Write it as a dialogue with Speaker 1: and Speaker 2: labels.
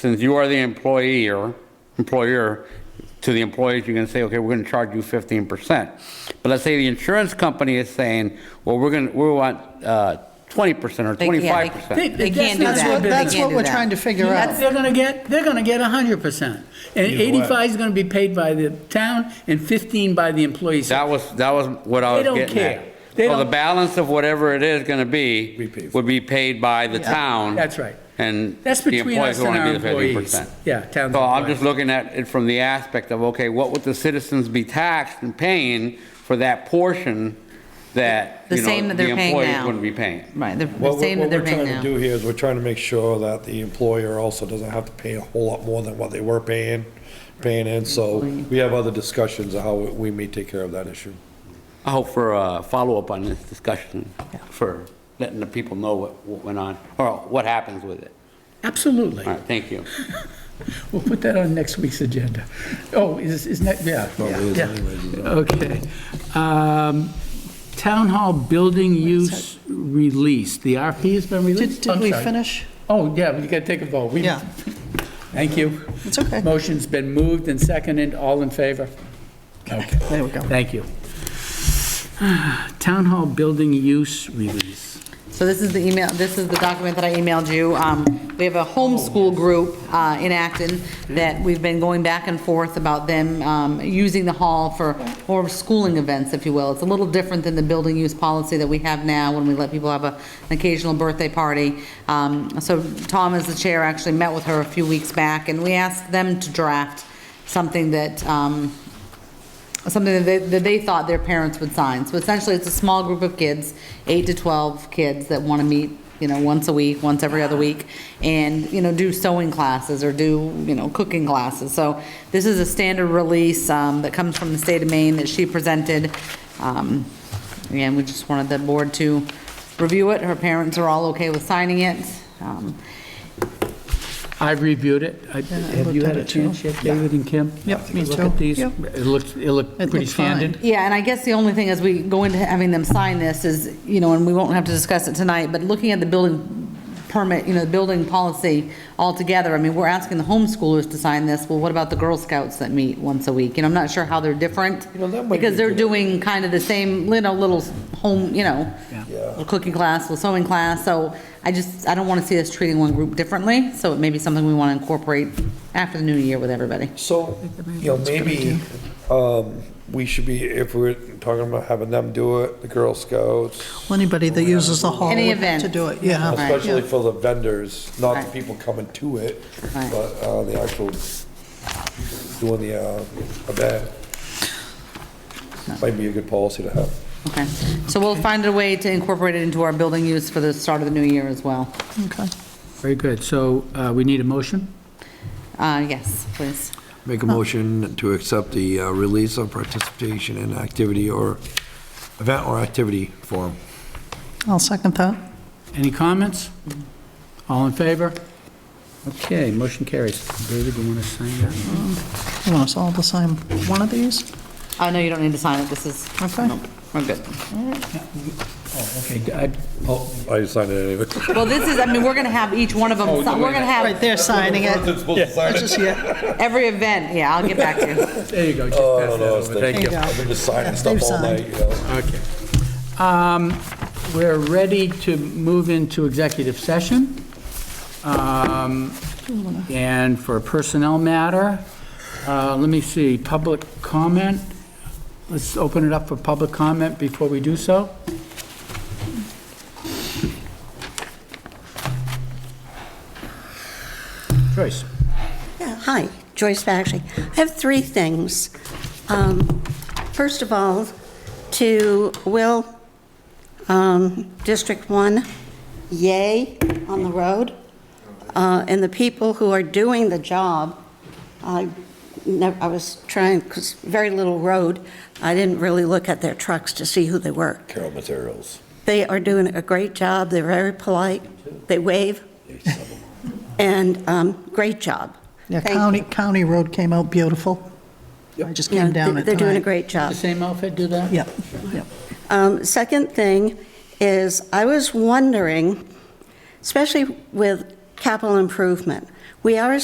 Speaker 1: since you are the employer, employer, to the employees, you can say, okay, we're gonna charge you 15%. But let's say the insurance company is saying, well, we're gonna, we want uh, 20% or
Speaker 2: They- yeah,
Speaker 1: 25%.
Speaker 2: They can't do
Speaker 3: That's
Speaker 2: that.
Speaker 3: what,
Speaker 2: They
Speaker 3: that's
Speaker 2: can't
Speaker 3: what
Speaker 2: do
Speaker 3: we're
Speaker 2: that.
Speaker 3: trying to figure out.
Speaker 4: They're gonna get, they're gonna get hundred percent. And eighty-five is gonna be paid by the town and fifteen by the employees.
Speaker 1: That was, that was what I
Speaker 4: They
Speaker 1: was
Speaker 4: don't
Speaker 1: getting
Speaker 4: care.
Speaker 1: at.
Speaker 4: They
Speaker 1: So the
Speaker 4: don't-
Speaker 1: balance of whatever it is gonna
Speaker 5: We pay
Speaker 1: be
Speaker 5: for
Speaker 1: would be paid by the town.
Speaker 4: That's right.
Speaker 1: And
Speaker 4: That's
Speaker 1: the
Speaker 4: between
Speaker 1: employees
Speaker 4: us
Speaker 1: who
Speaker 4: and
Speaker 1: wanna
Speaker 4: our
Speaker 1: be the
Speaker 4: employees.
Speaker 1: 15%.
Speaker 4: Yeah, town.
Speaker 1: So I'm just looking at it from the aspect of, okay, what would the citizens be taxed and paying for that portion that,
Speaker 2: The
Speaker 1: you
Speaker 2: same
Speaker 1: know,
Speaker 2: that
Speaker 1: the
Speaker 2: they're paying
Speaker 1: employees
Speaker 2: now.
Speaker 1: wouldn't be paying?
Speaker 2: Right, the- the
Speaker 5: What we're
Speaker 2: same that
Speaker 5: what
Speaker 2: they're
Speaker 5: we're
Speaker 2: paying
Speaker 5: trying to
Speaker 2: now.
Speaker 5: do here is we're trying to make sure that the employer also doesn't have to pay a whole lot more than what they were paying, paying in. So we have other discussions of how we may take care of that issue.
Speaker 1: I hope for a follow-up on this discussion, for letting the people know what what went on, or what happens with it.
Speaker 4: Absolutely.
Speaker 1: All right, thank you.
Speaker 4: We'll put that on next week's agenda. Oh, is, is next, yeah.
Speaker 5: Probably is
Speaker 4: yeah.
Speaker 5: anyways, is it?
Speaker 4: Okay. Um, Town Hall Building Use Release, the RP has been
Speaker 3: Did,
Speaker 4: released?
Speaker 3: did
Speaker 4: I'm
Speaker 3: we
Speaker 4: sorry.
Speaker 3: finish?
Speaker 4: Oh, yeah, we gotta take a vote. We-
Speaker 3: Yeah.
Speaker 4: Thank you.
Speaker 3: It's okay.
Speaker 4: Motion's been moved and seconded, all in favor? Okay,
Speaker 3: There we go.
Speaker 4: thank you. Town Hall Building Use Release.
Speaker 2: So this is the email, this is the document that I emailed you. Um, We have a
Speaker 5: Oh,
Speaker 2: homeschool group uh, in Acton that we've been going back and forth about them um, using the hall for more schooling events, if you will. It's a little different than the building use policy that we have now when we let people have a- an occasional birthday party. Um, So Tom, as the chair, actually met with her a few weeks back, and we asked them to draft something that um, something that they, that they thought their parents would sign. So essentially, it's a small group of kids, eight to 12 kids that want to meet, you know, once a week, once every other week, and, you know, do sewing classes or do, you know, cooking classes. So this is a standard release um, that comes from the state of Maine that she presented. Um, Again, we just wanted the board to review it. Her parents are all okay with signing it. Um,
Speaker 4: I've reviewed it. I- Have you had
Speaker 3: looked at
Speaker 4: a
Speaker 3: it too.
Speaker 4: chance yet, David and Kim?
Speaker 3: Yep, me
Speaker 4: Look at
Speaker 3: too.
Speaker 4: these.
Speaker 3: Yep.
Speaker 4: It looks, it looked pretty
Speaker 3: looked fine.
Speaker 4: standard.
Speaker 2: Yeah, and I guess the only thing as we go into having them sign this is, you know, and we won't have to discuss it tonight, but looking at the building permit, you know, the building policy altogether, I mean, we're asking the homeschoolers to sign this, well, what about the Girl Scouts that meet once a week? And I'm not sure how they're different,
Speaker 5: know, that might
Speaker 2: because
Speaker 5: be
Speaker 2: they're
Speaker 5: good.
Speaker 2: doing kind of the same, you know, little home, you know,
Speaker 5: Yeah.
Speaker 2: little cooking class, little sewing class, so I just, I don't want to see us treating one group differently, so it may be something we want to incorporate after the new year with everybody.
Speaker 5: So, you know, maybe, um, we should be, if we're talking about having them do it, the Girl Scouts,
Speaker 3: Well, Anybody that uses the hall
Speaker 2: Any
Speaker 3: would have
Speaker 2: event.
Speaker 3: to do it, yeah.
Speaker 2: Right.
Speaker 5: especially for the vendors, not the
Speaker 2: Right.
Speaker 5: people coming to it,
Speaker 2: Right.
Speaker 5: but, uh, the actual, doing the, uh, event. Might be a good policy to have.
Speaker 2: Okay, so we'll find a way to incorporate it into our building use for the start of the new year as well.
Speaker 3: Okay.
Speaker 4: Very good. So uh, we need a motion?
Speaker 2: Uh, yes, please.
Speaker 6: Make a motion to accept the uh, release of participation in activity or event or activity form.
Speaker 3: I'll second that.
Speaker 4: Any comments? All in favor? Okay, motion carries. David, you want to sign that?
Speaker 3: You want us all to sign one of these?
Speaker 2: Uh, no, you don't need to sign it, this is,
Speaker 3: Okay.
Speaker 2: we're good.
Speaker 4: Oh, okay. I-
Speaker 5: Oh, I signed it anyway.
Speaker 2: Well, this is, I mean, we're gonna have each one of them, we're gonna
Speaker 3: Right,
Speaker 2: have
Speaker 3: they're signing it. That's just, yeah,
Speaker 2: every event, yeah, I'll get back to you.
Speaker 4: There you go. Just pass that over. Thank
Speaker 3: there you
Speaker 4: you.
Speaker 3: go.
Speaker 5: I've been just signing stuff
Speaker 3: They've
Speaker 5: all
Speaker 3: signed.
Speaker 5: night, you know.
Speaker 4: Okay. Um, We're ready to move into executive session. Um, And for a personnel matter, uh, let me see, public comment. Let's open it up for public comment before we do so. Joyce?
Speaker 7: Yeah, Hi, Joyce Baxley. I have three things. Um, First of all, to Will, um, District 1, yay on the road. Uh, And the people who are doing the job, I nev- I was trying, because very little road, I didn't really look at their trucks to see who they were.
Speaker 5: Carol Materials.
Speaker 7: They are doing a great job. They're very polite. They wave. And um, great job.
Speaker 3: yeah,
Speaker 7: Thank you.
Speaker 3: County, County Road came out beautiful. I just
Speaker 7: Yeah,
Speaker 3: came down
Speaker 7: they-
Speaker 3: it
Speaker 7: They're doing a
Speaker 3: tonight.
Speaker 7: great job.
Speaker 4: The same outfit do that?
Speaker 3: Yep, yep.
Speaker 7: Um, Second thing is, I was wondering, especially with capital improvement, we are